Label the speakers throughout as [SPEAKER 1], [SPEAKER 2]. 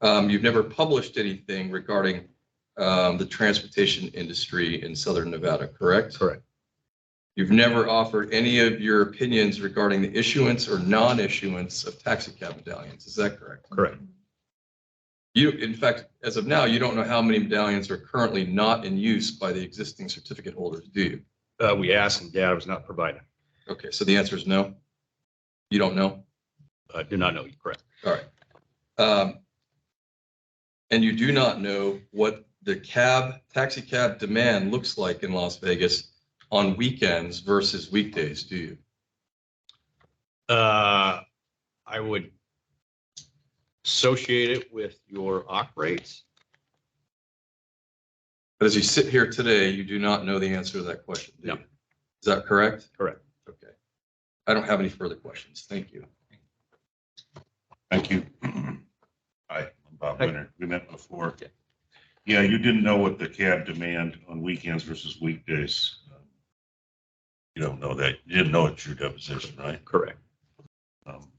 [SPEAKER 1] Um, you've never published anything regarding um, the transportation industry in Southern Nevada, correct?
[SPEAKER 2] Correct.
[SPEAKER 1] You've never offered any of your opinions regarding the issuance or non-issuance of taxi cab medallions, is that correct?
[SPEAKER 2] Correct.
[SPEAKER 1] You, in fact, as of now, you don't know how many medallions are currently not in use by the existing certificate holders, do you?
[SPEAKER 2] Uh, we asked and data was not provided.
[SPEAKER 1] Okay, so the answer is no? You don't know?
[SPEAKER 2] I Uh, do not know. Correct.
[SPEAKER 1] All right. Um, And you do not know what the cab, taxi cab demand looks like in Las Vegas on weekends versus weekdays, do you?
[SPEAKER 2] Uh, I would associate it with your OC rates.
[SPEAKER 1] But as you sit here today, you do not know the answer to that question, do you?
[SPEAKER 2] No.
[SPEAKER 1] Is that correct?
[SPEAKER 2] Correct.
[SPEAKER 1] Okay. I don't have any further questions. Thank you.
[SPEAKER 3] Thank you. Hi, I'm Bob Winter. We met before. Yeah, you didn't know what the cab demand on weekends versus weekdays. Um, You don't know that. You didn't know it's your deposition, right?
[SPEAKER 2] Correct.
[SPEAKER 3] Um,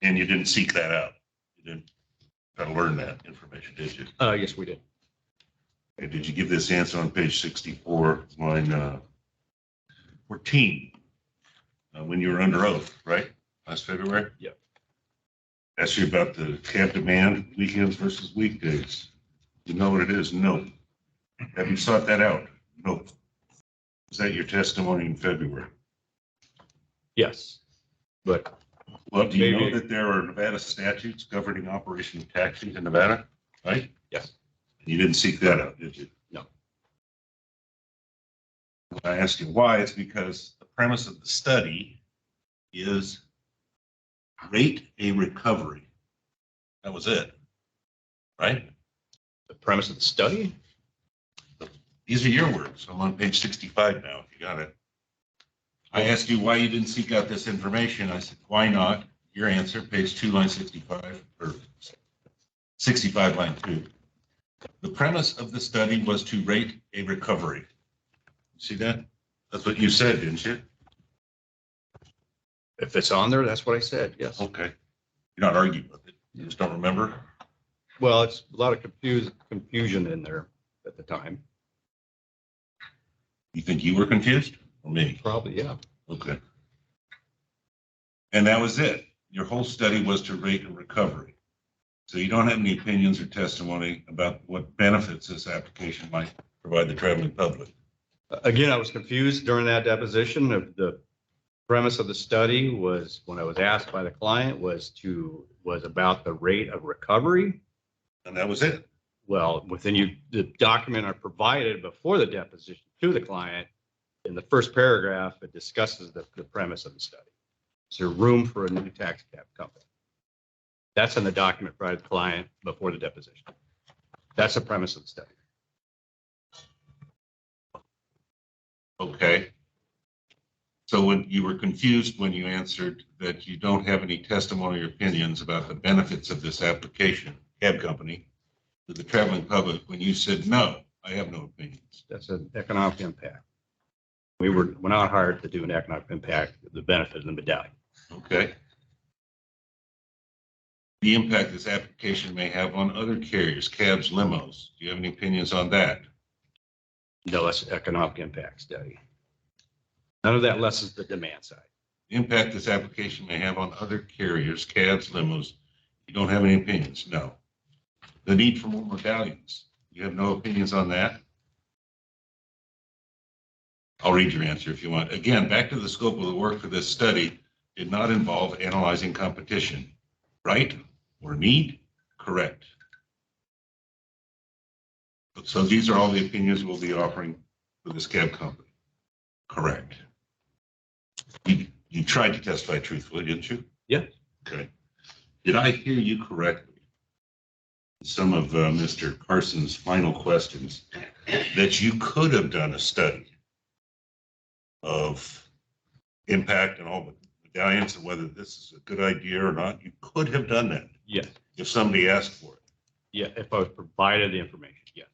[SPEAKER 3] And you didn't seek that out. You didn't try to learn that information, did you?
[SPEAKER 2] Uh, yes, we did.
[SPEAKER 3] And did you give this answer on page sixty-four, line uh, fourteen? uh, When you were under oath, right? Last February?
[SPEAKER 2] Yep.
[SPEAKER 3] Asked you about the cab demand, weekends versus weekdays. You know what it is? No. Have you sought that out? No. Is that your testimony in February?
[SPEAKER 2] Yes. But
[SPEAKER 3] Well, do you know
[SPEAKER 2] Maybe.
[SPEAKER 3] that there are Nevada statutes governing operation of taxis in Nevada, right?
[SPEAKER 2] Yes.
[SPEAKER 3] You didn't seek that out, did you?
[SPEAKER 2] No.
[SPEAKER 3] When I ask you why, it's because the premise of the study is rate a recovery. That was it, right?
[SPEAKER 2] the premise of the study,
[SPEAKER 3] These are your words. I'm on page sixty-five now, if you got it. I asked you why you didn't seek out this information. I said, why not? Your answer, page two, line sixty-five, or sixty-five, line two. The premise of the study was to rate a recovery. See that? That's what you said, didn't you?
[SPEAKER 2] if it's on there, that's what I said. Yes.
[SPEAKER 3] Okay. You're not arguing with it. You just don't remember?
[SPEAKER 2] Well, it's a lot of confuse, confusion in there at the time.
[SPEAKER 3] You think you were confused or me?
[SPEAKER 2] Probably, yeah.
[SPEAKER 3] Okay. And that was it. Your whole study was to rate and recovery. So you don't have any opinions or testimony about what benefits this application might provide the traveling public.
[SPEAKER 2] Again, I was confused during that deposition of the premise of the study was, when I was asked by the client, was to, was about the rate of recovery.
[SPEAKER 3] And that was it.
[SPEAKER 2] Well, within you, the document I provided before the deposition to the client, in the first paragraph, it discusses the, the premise of the study. Is there room for a new tax cap company? That's in the document provided to the client before the deposition. That's the premise of the study.
[SPEAKER 3] Okay. So when you were confused when you answered that you don't have any testimony or opinions about the benefits of this application, cab company, to the traveling public, when you said, no, I have no opinions.
[SPEAKER 2] That's an economic impact. We were, we're not hired to do an economic impact, the benefit of the medallion.
[SPEAKER 3] Okay. The impact this application may have on other carriers, cabs, limos. Do you have any opinions on that?
[SPEAKER 2] No, that's an economic impact study. None of that lessens the demand side.
[SPEAKER 3] The Impact this application may have on other carriers, cabs, limos. You don't have any opinions? No. The need for more medallions. You have no opinions on that? I'll read your answer if you want. Again, back to the scope of the work for this study did not involve analyzing competition. Right or need? Correct. So these are all the opinions we'll be offering for this cab company. Correct. You, you tried to testify truthfully, didn't you?
[SPEAKER 2] Yeah.
[SPEAKER 3] Okay. Did I hear you correctly? Some of uh, Mr. Carson's final questions, that you could have done a study of impact and all the medallions and whether this is a good idea or not. You could have done that
[SPEAKER 2] Yes,
[SPEAKER 3] if somebody asked for it.
[SPEAKER 2] yeah, if I was provided the information, yes.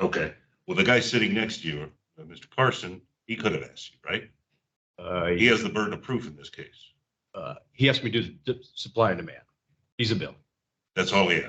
[SPEAKER 3] Okay. Well, the guy sitting next to you, uh, Mr. Carson, he could have asked you, right?
[SPEAKER 2] Uh,
[SPEAKER 3] He has the burden of proof in this case.
[SPEAKER 2] uh, he asked me to do the supply and demand. He's a bill.
[SPEAKER 3] That's all he asked.